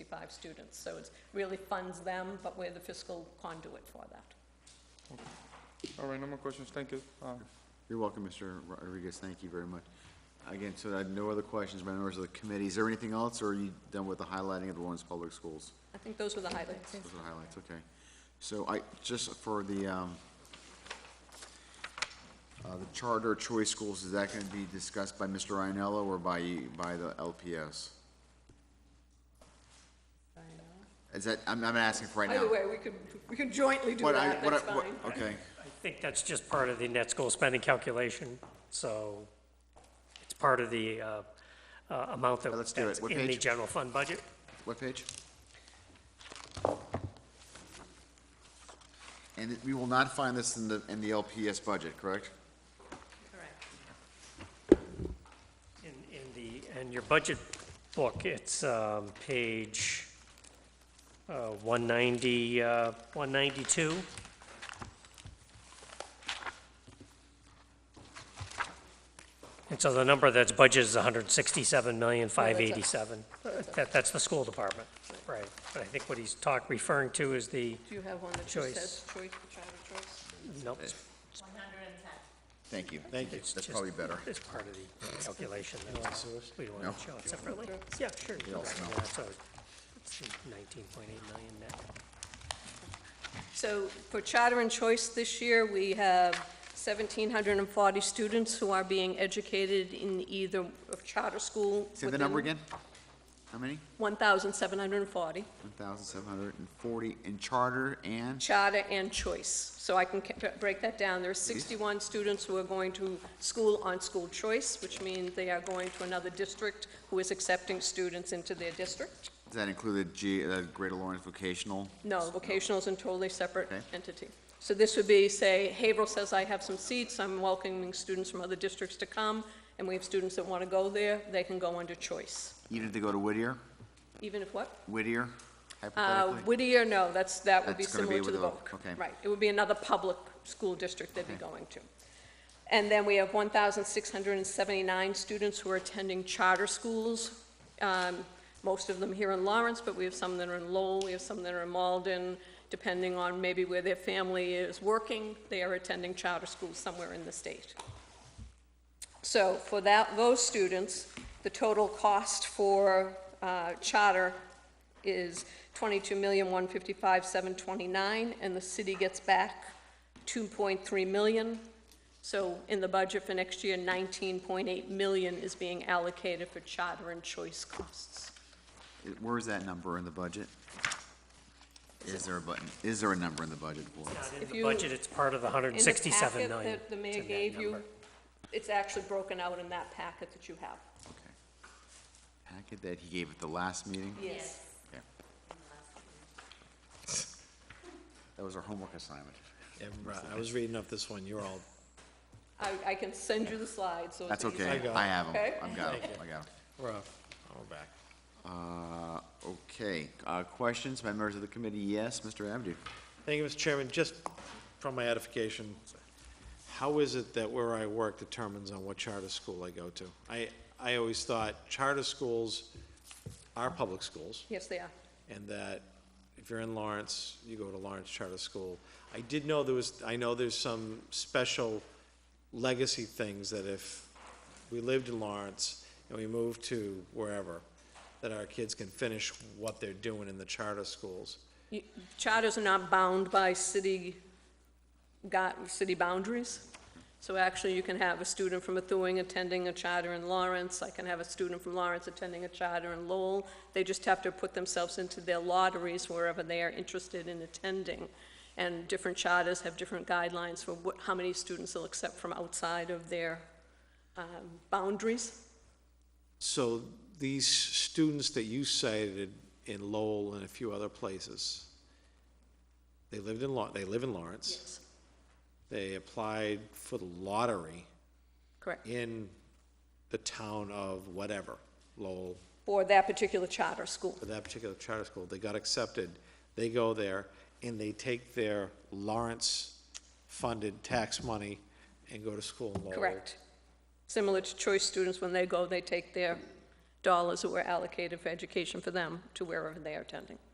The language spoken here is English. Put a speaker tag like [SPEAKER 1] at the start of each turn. [SPEAKER 1] 65 students. So it really funds them, but we're the fiscal conduit for that.
[SPEAKER 2] All right, no more questions, thank you. Uh,
[SPEAKER 3] You're welcome, Mr. Rodriguez, thank you very much. Again, so I have no other questions, by members of the committee, is there anything else, or are you done with the highlighting of the Lawrence Public Schools?
[SPEAKER 1] I think those were the highlights.
[SPEAKER 3] Those are the highlights, okay. So I, just for the, um, uh, the charter choice schools, is that gonna be discussed by Mr. Ryanello or by, by the LPS? Is that, I'm, I'm asking for right now.
[SPEAKER 1] Either way, we could, we could jointly do
[SPEAKER 3] What I-
[SPEAKER 1] that,
[SPEAKER 3] what I-
[SPEAKER 1] that's
[SPEAKER 3] what-
[SPEAKER 1] fine.
[SPEAKER 3] Okay,
[SPEAKER 4] I think that's just part of the net school spending calculation, so it's part of the uh, uh, amount that-
[SPEAKER 3] Let's do it.
[SPEAKER 4] that's
[SPEAKER 3] What
[SPEAKER 4] in the
[SPEAKER 3] page?
[SPEAKER 4] general fund budget.
[SPEAKER 3] what page? And we will not find this in the, in the LPS budget, correct?
[SPEAKER 1] Correct.
[SPEAKER 4] In, in the, in your budget book, it's um, page uh, 190, uh, 192. And so the number that's budgeted is 167,587. That, that's the school department, right. But I think what he's talk, referring to is the,
[SPEAKER 1] Do you have one that just
[SPEAKER 4] Choice.
[SPEAKER 1] says choice, charter choice?
[SPEAKER 4] nope,
[SPEAKER 3] Thank you. Thank you. That's
[SPEAKER 4] just-
[SPEAKER 3] probably better.
[SPEAKER 4] it's part of the calculation. that's- We don't want to show it separately. Yeah, sure. you can
[SPEAKER 3] all
[SPEAKER 4] write
[SPEAKER 3] smell.
[SPEAKER 4] that, so It's 19.8 million net.
[SPEAKER 1] So for charter and choice this year, we have 1,740 students who are being educated in either of charter school.
[SPEAKER 3] Say the number
[SPEAKER 1] within
[SPEAKER 3] again? How many?
[SPEAKER 1] 1,740,
[SPEAKER 3] One thousand seven hundred and forty in charter and,
[SPEAKER 1] charter and choice. So I can ca- break that down. There are 61 students who are going to school on school choice, which means they are going to another district who is accepting students into their district.
[SPEAKER 3] does that include the G, the Greater Lawrence Vocational?
[SPEAKER 1] No, vocational is a totally separate
[SPEAKER 3] Okay.
[SPEAKER 1] entity. So this would be, say, Haverhill says, I have some seats, I'm welcoming students from other districts to come, and we have students that want to go there, they can go under choice.
[SPEAKER 3] Even if they go to Whittier,
[SPEAKER 1] Even if what?
[SPEAKER 3] Whittier
[SPEAKER 1] Uh,
[SPEAKER 3] hypothetically?
[SPEAKER 1] Whittier, no, that's, that would be
[SPEAKER 3] That's gonna
[SPEAKER 1] similar
[SPEAKER 3] be
[SPEAKER 1] to the
[SPEAKER 3] with
[SPEAKER 1] Voc.
[SPEAKER 3] the Voc, okay.
[SPEAKER 1] Right, it would be another public school district they'd be going to. And then we have 1,679 students who are attending charter schools, um, most of them here in Lawrence, but we have some that are in Lowell, we have some that are in Malden, depending on maybe where their family is working, they are attending charter schools somewhere in the state. So for that, those students, the total cost for uh, charter is twenty-two million, one fifty-five, seven twenty-nine, and the city gets back two point three million. So in the budget for next year, nineteen point eight million is being allocated for charter and choice costs.
[SPEAKER 3] It- Where is that number in the budget? Is there a button, is there a number in the budget for it?
[SPEAKER 4] Not in
[SPEAKER 1] If
[SPEAKER 4] the
[SPEAKER 1] you-
[SPEAKER 4] budget, it's part of the
[SPEAKER 1] In the
[SPEAKER 4] 167
[SPEAKER 1] packet
[SPEAKER 4] million.
[SPEAKER 1] that the
[SPEAKER 4] It's
[SPEAKER 1] mayor
[SPEAKER 4] in that
[SPEAKER 1] gave you,
[SPEAKER 4] number.
[SPEAKER 1] it's actually broken out in that packet that you have.
[SPEAKER 3] Okay. Packet that he gave at the last meeting?
[SPEAKER 1] Yes.
[SPEAKER 3] Okay. That was our homework assignment.
[SPEAKER 5] Yeah, right. I was reading up this one, you're all,
[SPEAKER 1] I, I can send you the slides, so it's
[SPEAKER 3] That's
[SPEAKER 1] easier.
[SPEAKER 3] okay,
[SPEAKER 5] got
[SPEAKER 3] I
[SPEAKER 5] it.
[SPEAKER 3] have them,
[SPEAKER 1] Okay.
[SPEAKER 3] I've got them, I got them.
[SPEAKER 5] we're up, we're back.
[SPEAKER 3] Uh, Okay, Uh, questions by members of the committee? Yes, Mr. Abdu.
[SPEAKER 5] Thank you, Mr. Chairman, just from my edification, how is it that where I work determines on what charter school I go to? I, I always thought charter schools are public schools,
[SPEAKER 1] Yes, they are.
[SPEAKER 5] and that if you're in Lawrence, you go to Lawrence Charter School. I did know there was, I know there's some special legacy things that if we lived in Lawrence and we moved to wherever, that our kids can finish what they're doing in the charter schools.
[SPEAKER 1] You- Charters are not bound by city, got, city boundaries. So actually, you can have a student from Methuen attending a charter in Lawrence. I can have a student from Lawrence attending a charter in Lowell. They just have to put themselves into their lotteries wherever they are interested in attending. And different charters have different guidelines for what, how many students they'll accept from outside of their um, boundaries.
[SPEAKER 5] So these students that you cited in Lowell and a few other places, they lived in Law, they live in Lawrence.
[SPEAKER 1] Yes.
[SPEAKER 5] They applied for the lottery.
[SPEAKER 1] Correct.
[SPEAKER 5] in the town of whatever, Lowell,
[SPEAKER 1] For that particular charter school.
[SPEAKER 5] for that particular charter school, they got accepted, they go there, and they take their Lawrence-funded tax money and go to school in Lowell.
[SPEAKER 1] Correct. Similar to choice students, when they go, they take their dollars that were allocated for education for them to wherever they are attending.